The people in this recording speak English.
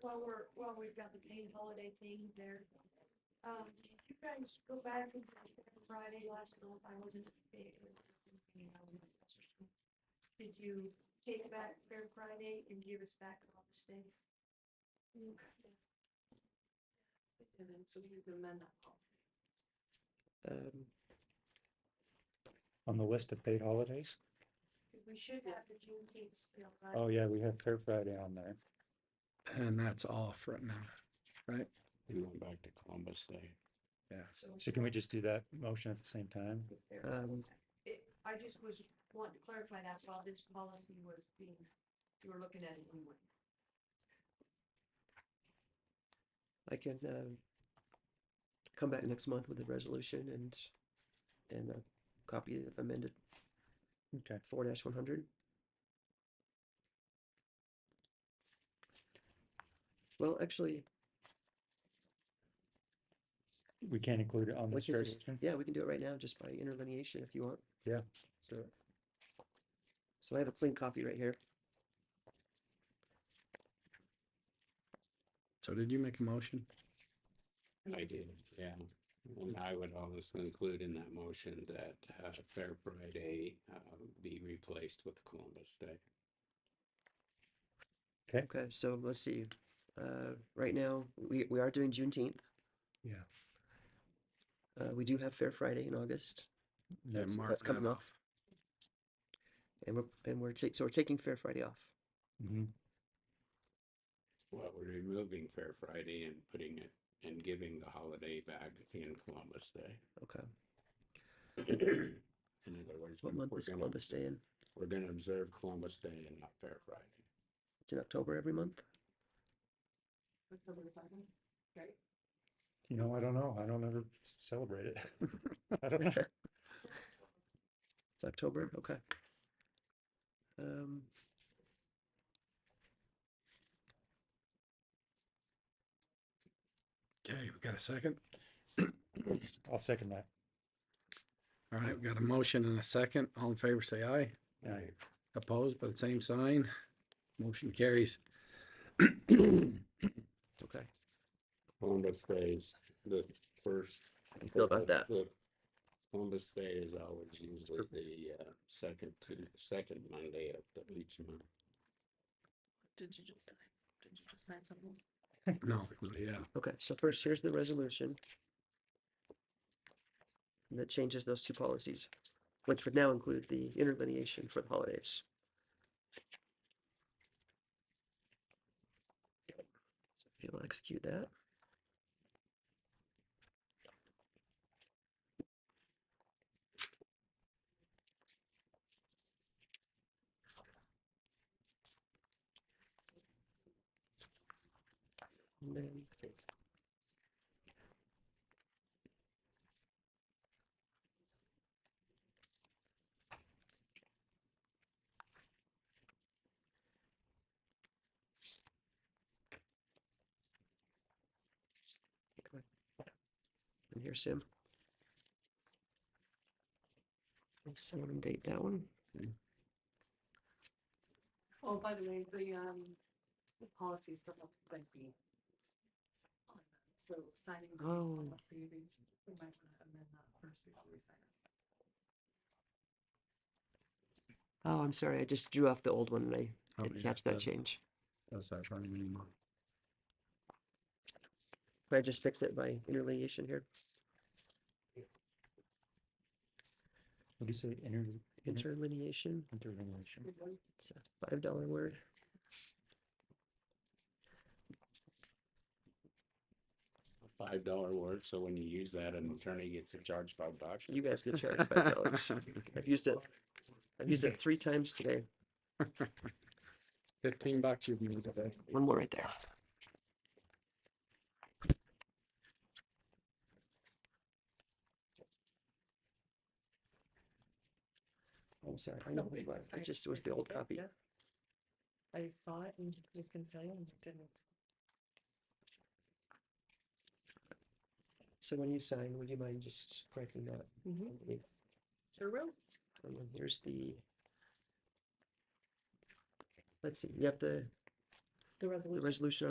while we're, while we've got the paid holiday thing there. Um, did you guys go back and Friday last month, I wasn't. there, and I was in session. Did you take back Fair Friday and give us back Columbus Day? And then, so you can amend that policy. Um, on the list of paid holidays. 'Cause We should have the Juneteenth still, right? Oh, yeah, we have Fair Friday on there. and that's off right now. We went back to Columbus Day. Yeah. So So can we just do that motion at the same time? it's there. Um, It, I just was wanting to clarify that while this policy was being, you were looking at it anyway. I can um come back next month with a resolution and and a copy of amended Okay. four dash one hundred. Well, actually, We can't include it on We this can do first. yeah, we can do it right now just by interlineation if you want. Yeah. So, so I have a clean copy right here. So did you make a motion? I did, yeah. And I would also include in that motion that uh, Fair Friday uh, be replaced with Columbus Day. Okay, so let's see. Uh, right now, we, we are doing Juneteenth. Yeah. Uh, we do have Fair Friday in August. Yeah, That's, Mark that's coming Nava. off. And we're, and we're, ta- so we're taking Fair Friday off. Mhm. Well, we're removing Fair Friday and putting it and giving the holiday back in Columbus Day. Okay. In other words, What month we're is gonna- Columbus Day in? We're gonna observe Columbus Day and not Fair Friday. It's in October every month? October the second, right? You know, I don't know. I don't ever celebrate it. I don't know. It's October, okay. Um. Okay, we got a second. I'll second that. All right, we got a motion and a second. All in favor, say aye. Aye. Opposed, by the same sign. Motion carries. Okay. Columbus Day is the first. you feel about that? the- Columbus Day is always usually the uh, second to, second Monday of the each month. Did you just, sign? did you just sign something? No, yeah, Okay, so first, here's the resolution. That changes those two policies, which would now include the interlineation for the holidays. So If you'll execute that. And then And here's Sam. Someone date that one. Oh, by the way, the, um, the policies don't look like the. So signing. the Oh. policy, we we might want to amend that first before we sign it. Oh, I'm sorry. I just drew off the old one and I Oh, didn't yeah, catch that that- change. that's not running anymore. Can I just fix it by interlineation here? What do you say? Inter- Mm-hmm. inter- Interlineation. Interrelation. Good one. It's a five dollar word. a five dollar word, so when you use that, an attorney gets to charge five bucks. You guys get charged five dollars. I've used it. I've used it three times today. Fifteen bucks you've made today. One more right there. Oh, I'm sorry. I know No, who you it's are. okay. It just was the old copy. Yeah. I saw it and was gonna tell you and didn't. So when you sign, would you mind just correcting that? Mm-hmm. underneath? Sure will. And then here's the. Let's see, you have the, The the resolution. resolution